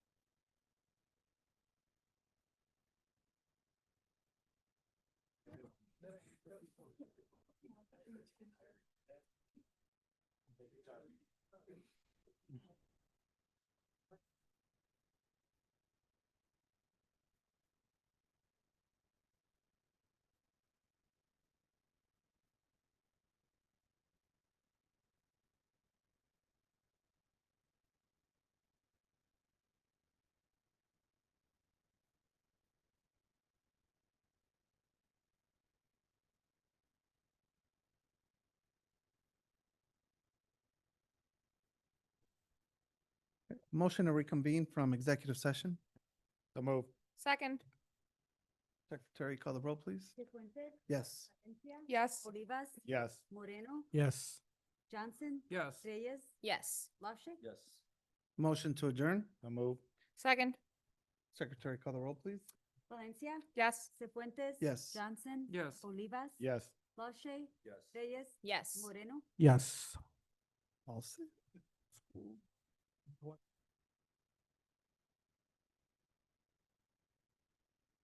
Motion to reconvene from executive session. So move. Second, Secretary, call the roll, please. Cifuentes, Yes. Valencia, yes. Olivas, Yes. Moreno, Yes. Johnson, Yes. Reyes, Yes. LaShay. Yes. Motion to adjourn. So move. Second, Secretary, call the roll, please. Valencia, yes. Cifuentes. Yes. Johnson. Yes. Olivas. Yes. LaShay, Yes. Reyes, Yes. Moreno. Yes. All set.